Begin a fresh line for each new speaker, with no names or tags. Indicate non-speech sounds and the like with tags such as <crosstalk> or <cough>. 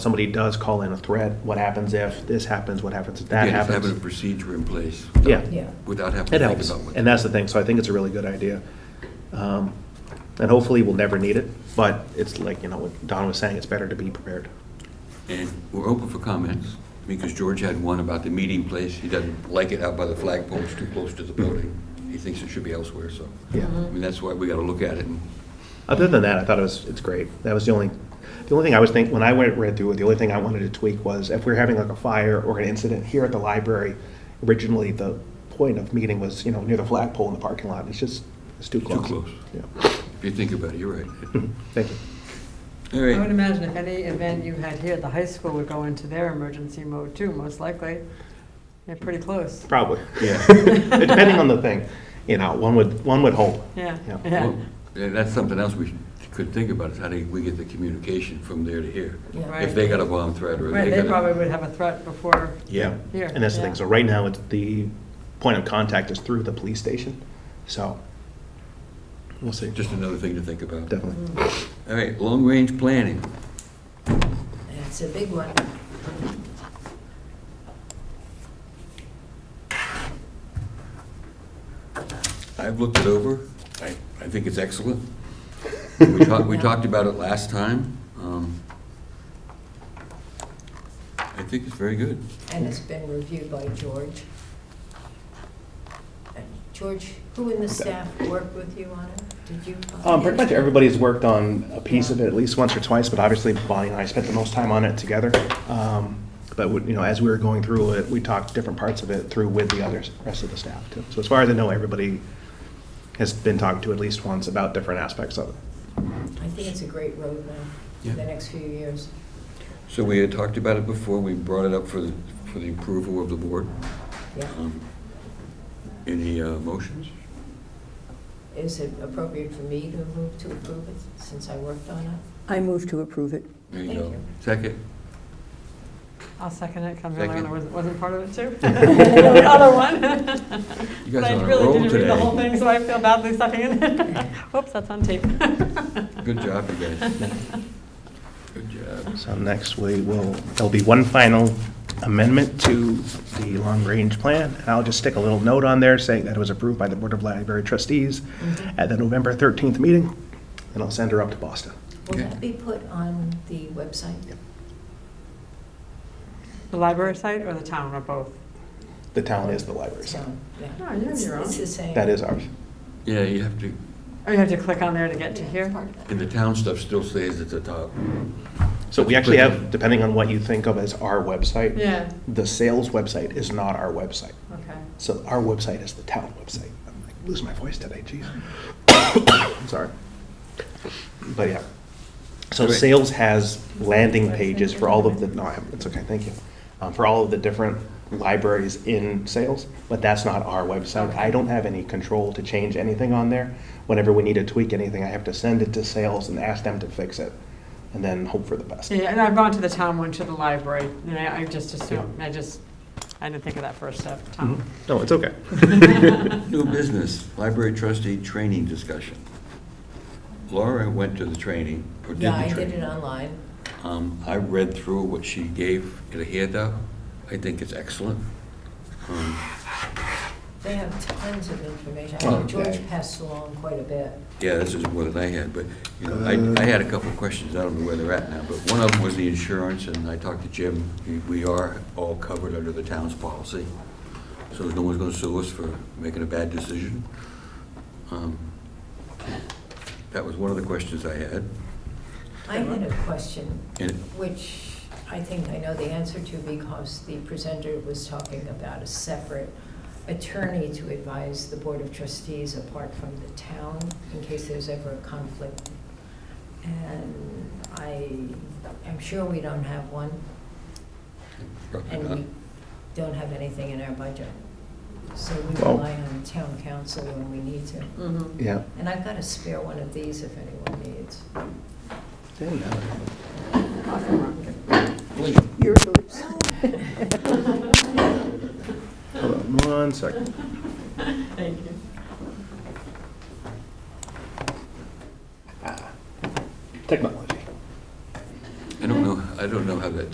somebody does call in a threat, what happens if this happens, what happens if that
Yeah, just Having a
happens?
procedure in place.
Yeah.
without-
Yeah.
Without having to
It
think
helps,
about what.
and that's the thing, so I think it's a really good idea. Um, And hopefully, we'll never need it, but it's like, you know, what Don was saying, it's better to be prepared.
And we're open for comments, because George had one about the meeting place. He doesn't like it out by the flagpole, it's too close to the building. He thinks it should be elsewhere, so.
Yeah.
I mean, that's why we got to look at it. and-
Other than that, I thought it was, it's great. That was the only, the only thing I was thinking, when I went, read through it, the only thing I wanted to tweak was if we're having like a fire or an incident here at the library, originally the point of meeting was, you know, near the flagpole in the parking lot. It's just, it's too close.
close.
Yeah.
If you think about it, you're
<laughs>
right.
Thank you.
All
I would
right,
imagine if any event you had here, the high school would go into their emergency mode too, most likely. They're pretty close.
Probably. <laughs>
yeah.
Depending on the thing, you know, one would, one would hope.
Yeah,
Yeah.
yeah,
Well, yeah, That's something else we should- could think about, is how do we get the communication from there to here?
Yeah.
If they got a bomb threat or
Right,
they
they
got a...
probably would have a threat before,
Yeah.
Here,
And that's the thing.
yeah.
So right now, it's the point of contact is through the police station. So we'll see.
Just another thing to think about.
Definitely.
All right, long-range planning.
It's a big one.
I've looked it over. I, I think it's
<laughs>
excellent. We talked, we talked about it last time. Um, I think it's very good.
And it's been reviewed by George. And George, who in the staff worked with you on it? Did you?
Um, pretty much everybody's worked on a piece of it at least once or twice, but obviously Bonnie and I spent the most time on it together. Um, but, we- you know, as we were going through it, we talked different parts of it through with the others, rest of the staff too. So as far as I know, everybody has been talked to at least once about different aspects of it.
I think it's a great roadmap for
Yeah.
the next few years.
So we had talked about it before. We brought it up for, the for the approval of the board.
Yeah.
Um, Any uh, motions?
Is it appropriate for me to move to approve it since I worked on it?
I move to approve it.
There you
Thank
go.
you.
Second?
I'll second it, because
Second.
Marilyn wasn't, wasn't part of it <laughs> too. The other one.
You
<laughs> But
guys
I
are on a
really
roll
didn't read the whole
today.
thing, so I feel badly sucking in. <laughs> Whoops, that's on tape.
<laughs> Good job, you guys.
<laughs>
Good job.
So next we will, there'll be one final amendment to the long-range plan. And I'll just stick a little note on there saying that it was approved by the Board of Library Trustees at the November 13th meeting. And I'll send her up to Boston.
Will
Okay.
that be put on the website?
The library site or the town or both?
The town is the library, so
So, yeah.
No, you have
It's-
your own.
It's the same.
that is ours.
Yeah, you have to,
Oh, you have to click on there to get to
Yeah, it's
here?
part of it.
and the town stuff still stays at the top.
So we actually have, depending on what you think of as our website,
Yeah,
the sales website is not our website.
okay.
So our website is the town website. I'm like losing my voice today, jeez. I'm <coughs> sorry. But yeah. So
Great.
sales has landing pages for all of the, no, I haven't- it's okay, thank you. Um, For all of the different libraries in sales, but that's not our website. I don't have any control to change anything on there. Whenever we need to tweak anything, I have to send it to sales and ask them to fix it and then hope for the best.
Yeah, and I've gone to the town one, to the library, and I, I just assumed, I just, I didn't think of that first step, town.
No, it's okay.
New business, library trustee training discussion. Laura went to the training, or did
Yeah,
the
I did it
training.
online.
Um, I read through what she gave in a handout. I think it's excellent. Um,
They have tons of information. I
Oh,
know George
okay.
passed along quite a bit.
Yeah, this is more than I had, but, you know, I, I had a couple of questions, I don't know where they're at now, but one of them was the insurance, and I talked to Jim, We- we are all covered under the town's policy, so no one's gonna sue us for making a bad decision. Um, That was one of the questions I had,
I had a question,
and
which I think I know the answer to because the presenter was talking about a separate attorney to advise the Board of Trustees apart from the town in case there's ever a conflict. And I am sure we don't have one
probably
and
not.
we don't have anything in our budget. So we
Well-
rely on town council when we need to.
Mhm.
Yeah.
And I've got a spare one of these if anyone needs.
Please,
Your hoops.
Hold on one second.